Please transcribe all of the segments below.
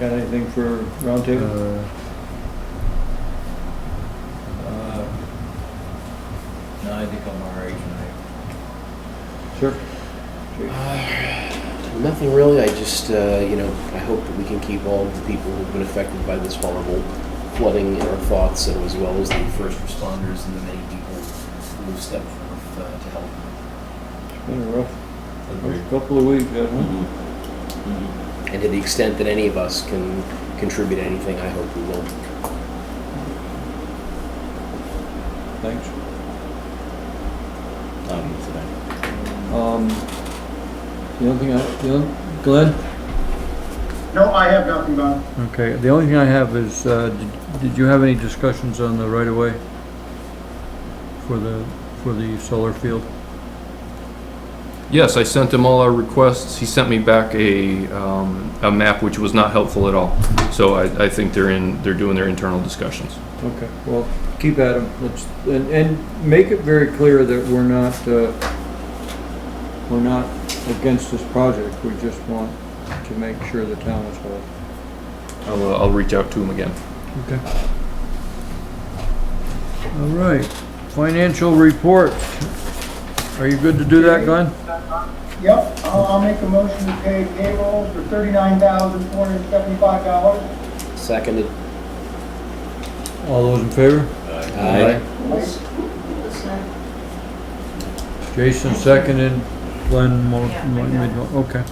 Got anything for roundtable? Uh, Uh, No, I think I'm all right tonight. Sure. Nothing really. I just, uh, you know, I hope that we can keep all of the people who've been affected by this horrible flooding in our thoughts, and as well as the first responders and the many people who have stepped forth uh, to help. It's been a rough, rough couple of weeks, hasn't And to the extent that any of us can contribute anything, I hope we will. it? Thanks. I'll get to that. Um, the only thing I, the only, Glenn? No, I have nothing, Bob. Okay, the only thing I have is, uh, did- did you have any discussions on the right of way? For the, for the solar field? Yes, I sent him all our requests. He sent me back a, um, a map which was not helpful at all. So I, I think they're in, they're doing their internal discussions. Okay, well, keep at them, let's, and, and make it very clear that we're not, uh, we're not against this project, we just want to make sure the town is whole. I'll, uh, I'll reach out to him again. Okay. All right, financial report. Are you good to do that, Glenn? Yep, I'll, I'll make a motion to pay payroll for thirty-nine thousand, four hundred and seventy-five dollars. Seconded. All those in favor? Aye. Jason seconded, Glenn mo- Yeah, I mo- got it. made mo- okay.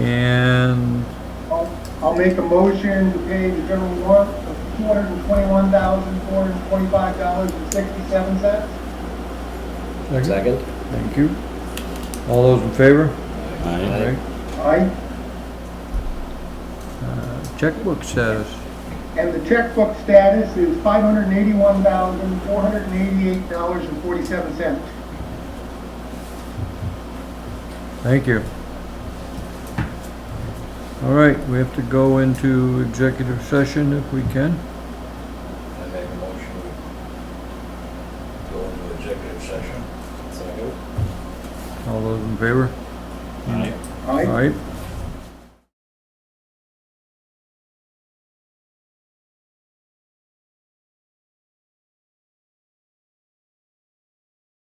And I'll, I'll make a motion to pay the general warrant of two hundred and twenty-one thousand, four hundred and twenty-five dollars and sixty-seven cents. second, Second. thank you. All those in favor? Aye. Aye. Aye. Uh, Checkbook status. And the checkbook status is five hundred and eighty-one thousand, four hundred and eighty-eight dollars and forty-seven cents. Thank you. All right, we have to go into executive session if we can. I make a motion to go into executive session. Second. All those in favor? Aye. All Aye. right,